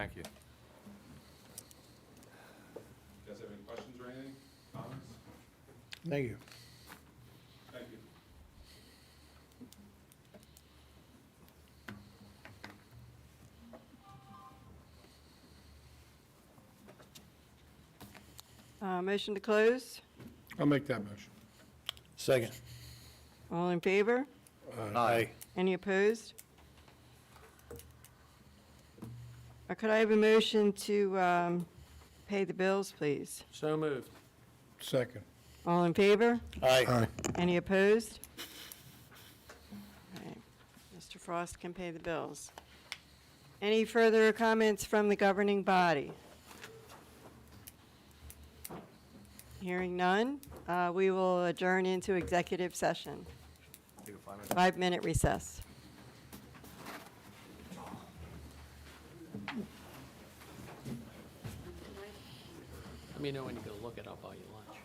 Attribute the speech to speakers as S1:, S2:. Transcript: S1: Thank you.
S2: You guys have any questions or anything, comments?
S3: Thank you.
S2: Thank you.
S4: Uh, Motion to close.
S3: I'll make that motion. Second.
S4: All in favor?
S3: Aye.
S4: Any opposed? Uh, Could I have a motion to um, pay the bills, please?
S5: So moved.
S3: Second.
S4: All in favor?
S3: Aye.
S4: Any opposed? All right. Mr. Frost can pay the bills. Any further comments from the governing body? Hearing none, uh, we will adjourn into executive session. Five-minute recess.
S5: Let me know when you go look it up all you lunch.